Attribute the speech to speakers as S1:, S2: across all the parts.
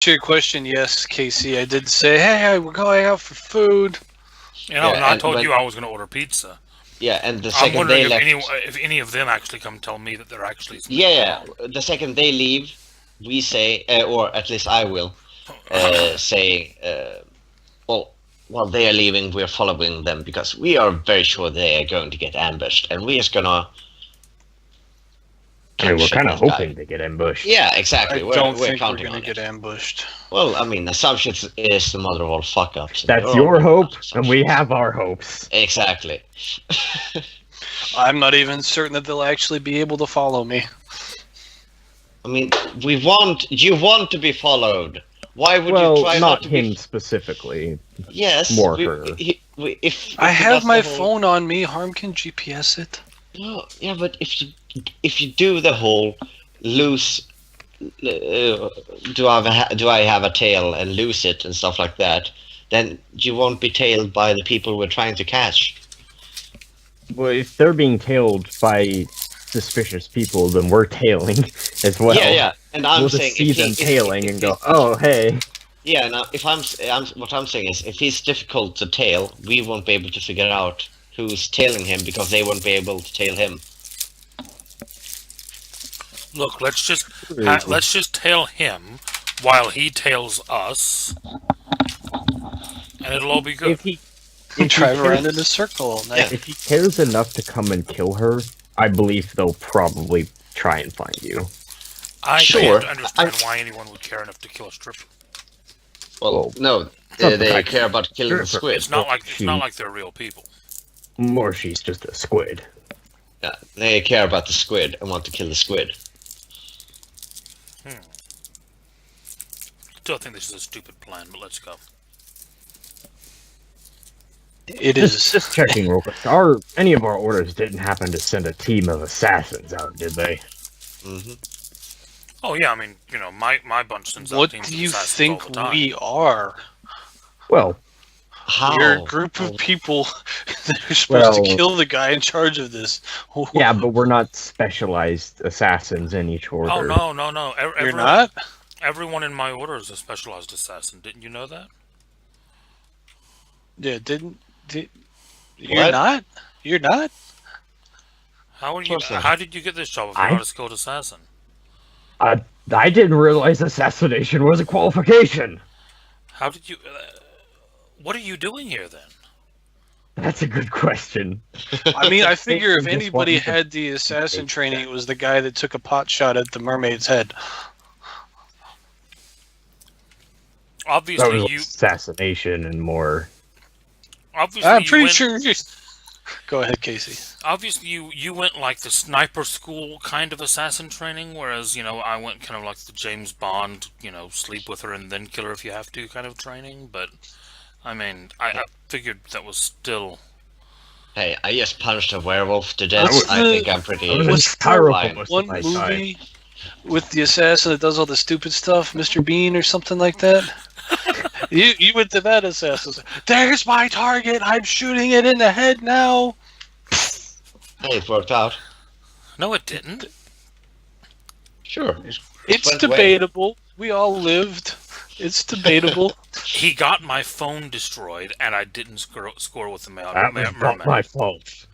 S1: to your question, yes, Casey, I did say, hey, hey, we're going out for food.
S2: You know,
S3: Yeah,
S2: and I
S3: and
S2: told
S3: when-
S2: you I was going to order pizza.
S3: Yeah, and the
S2: I'm
S3: second
S2: wondering
S3: they
S2: if
S3: left.
S2: any, if any of them actually come tell me that they're actually.
S3: Yeah, the second they leave, we say, uh, or at least I will uh, say, uh, well, while they are leaving, we're following them because we are very sure they are going to get ambushed, and we're just gonna.
S4: I mean, we're
S3: catch
S4: kind of
S3: that guy.
S4: hoping they get ambushed.
S3: Yeah,
S1: I
S3: exactly. we're,
S1: don't
S3: we're
S1: think we're
S3: counting
S1: going
S3: on
S1: to get
S3: it.
S1: ambushed.
S3: Well, I mean, assumptions is the mother of all fuck ups.
S4: That's your hope, and we have our hopes.
S3: Exactly.
S1: I'm not even certain that they'll actually be able to follow me.
S3: I mean, we want you want to be followed. Why would
S4: Well,
S3: you try
S4: not,
S3: to
S4: him
S3: Be...
S4: specifically.
S3: Yes,
S4: more
S3: we-
S4: her.
S3: he- we- if
S1: I
S3: if
S1: have
S3: that's
S1: my
S3: the whole-
S1: phone on me. Harm can GPS it.
S3: No, yeah, but if you if you do the whole lose, uh, do I have a, ha- do I have a tail and lose it and stuff like that, then you won't be tailed by the people we're trying to catch.
S4: Well, if they're being tailed by suspicious people, then we're tailing as well.
S3: yeah, yeah. And I'm
S4: we'll
S3: saying
S4: just see
S3: if he-
S4: them
S3: if-
S4: tailing
S3: if-
S4: and
S3: if-
S4: go, "Oh, hey,
S3: Yeah, now if I'm, s- I'm what I'm saying is if he's difficult to tail, we won't be able to figure out who's tailing him because they won't be able to tail him.
S2: Look, let's just ha- let's just tail him while he tails us, and it'll all be good.
S4: if he
S1: And drive around
S4: cares-
S1: in a circle all night.
S4: if he cares enough to come and kill her, I believe they'll probably try and find you."
S2: I
S3: Sure.
S2: can't understand why anyone would care enough to kill a stripper.
S3: Well,
S4: Well,
S3: no,
S4: not
S3: they, they
S4: that-
S3: care about killing the
S4: Sure,
S3: squid.
S2: It's not like it's not
S4: shoot.
S2: like they're real people.
S4: Or she's just a squid.
S3: Yeah, they care about the squid and want to kill the squid.
S2: Still think this is a stupid plan, but let's go.
S1: It
S4: Just,
S1: is.
S4: just checking real quick. Our any of our orders didn't happen to send a team of assassins out, did they?
S3: hmm
S2: Oh yeah, I mean, you know, my my bunch sends out
S1: What
S2: teams
S1: do
S2: of
S1: you
S2: assassins all
S1: think
S2: the time.
S1: we are?
S4: Well,
S3: How?
S1: We're a group
S3: Oh.
S1: of people that are supposed to
S4: Well-
S1: kill the guy in charge of this.
S4: yeah, but we're not specialized assassins in each order.
S2: Oh no, no, no! Ev-
S1: You're
S2: everyone-
S1: not?
S2: Everyone in my order is a specialized assassin. Didn't you know that?
S1: Yeah, didn't. Did, you're
S3: What?
S1: not? You're not?
S2: How are you?
S3: course not.
S2: How did you get this job if you're
S4: I-
S2: not a skilled assassin?
S4: I, I didn't realize assassination was a qualification.
S2: How did you? Uh, what are you doing here then?
S4: That's a good question.
S1: I mean, I figure if
S4: Just want
S1: anybody
S4: me to-
S1: had the assassin training, it was the guy that took a pot shot at the mermaid's head.
S4: That
S2: Obviously,
S4: was
S2: you.
S4: assassination and more.
S2: Obviously,
S1: I'm
S2: you
S1: pretty
S2: went,
S1: sure. you- Go ahead, Casey.
S2: Obviously, you you went like the sniper school kind of assassin training, whereas you know I went kind of like the James Bond, you know, sleep with her and then kill her if you have to kind of training. But I mean, I, I figured that was still.
S3: Hey, I just punched a werewolf to death.
S4: was-
S3: I think I'm pretty.
S4: I was
S1: What's
S4: in Cairo for
S3: fine.
S4: most of
S1: One
S4: my
S1: movie
S4: time.
S1: with the assassin that does all the stupid stuff, Mr. Bean or something like that. you you went to that assassin. There's my target. I'm shooting it in the head now.
S3: Hey, it worked out.
S2: No, it didn't.
S3: Sure.
S1: It's
S3: But wait.
S1: debatable. We all lived. It's debatable.
S2: He got my phone destroyed, and I didn't score, score with the mail.
S4: That
S2: ma-
S4: was not
S2: mermaid.
S4: my fault.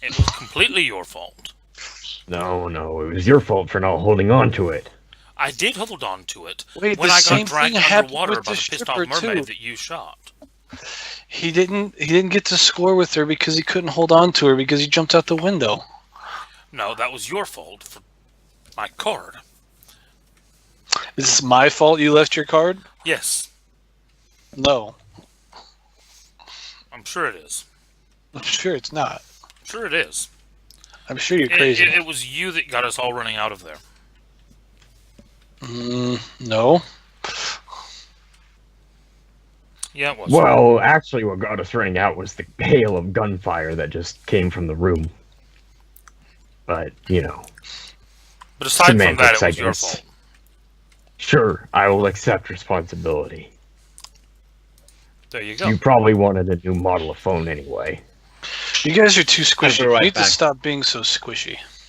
S2: It was completely your fault.
S4: No, no, it was your fault for not holding on to it.
S2: I did hold on to it
S1: Wait,
S2: when
S1: the
S2: I
S1: same
S2: got dragged
S1: thing happened
S2: underwater
S1: with
S2: by
S1: the
S2: the pissed off
S1: stripper
S2: mermaid
S1: too.
S2: that you shot.
S1: He didn't. He didn't get to score with her because he couldn't hold on to her because he jumped out the window.
S2: No, that was your fault for my card.
S1: Is this my fault? You left your card?
S2: Yes,
S1: No,
S2: I'm sure it is.
S1: I'm sure it's not.
S2: I'm sure it is.
S1: I'm sure you're
S2: It-
S1: crazy.
S2: It, it was you that got us all running out of there.
S1: Mm, no.
S2: Yeah, it was.
S4: Well, actually, what got us running out was the hail of gunfire that just came from the room. But, you know,
S2: but aside from that,
S4: semantics,
S2: it
S4: I
S2: was your
S4: guess.
S2: fault.
S4: sure, I will accept responsibility.
S2: There you go.
S4: You probably wanted a new model of phone anyway.
S1: You guys are too squishy.
S3: be right
S1: you need
S3: back.
S1: to stop being so squishy.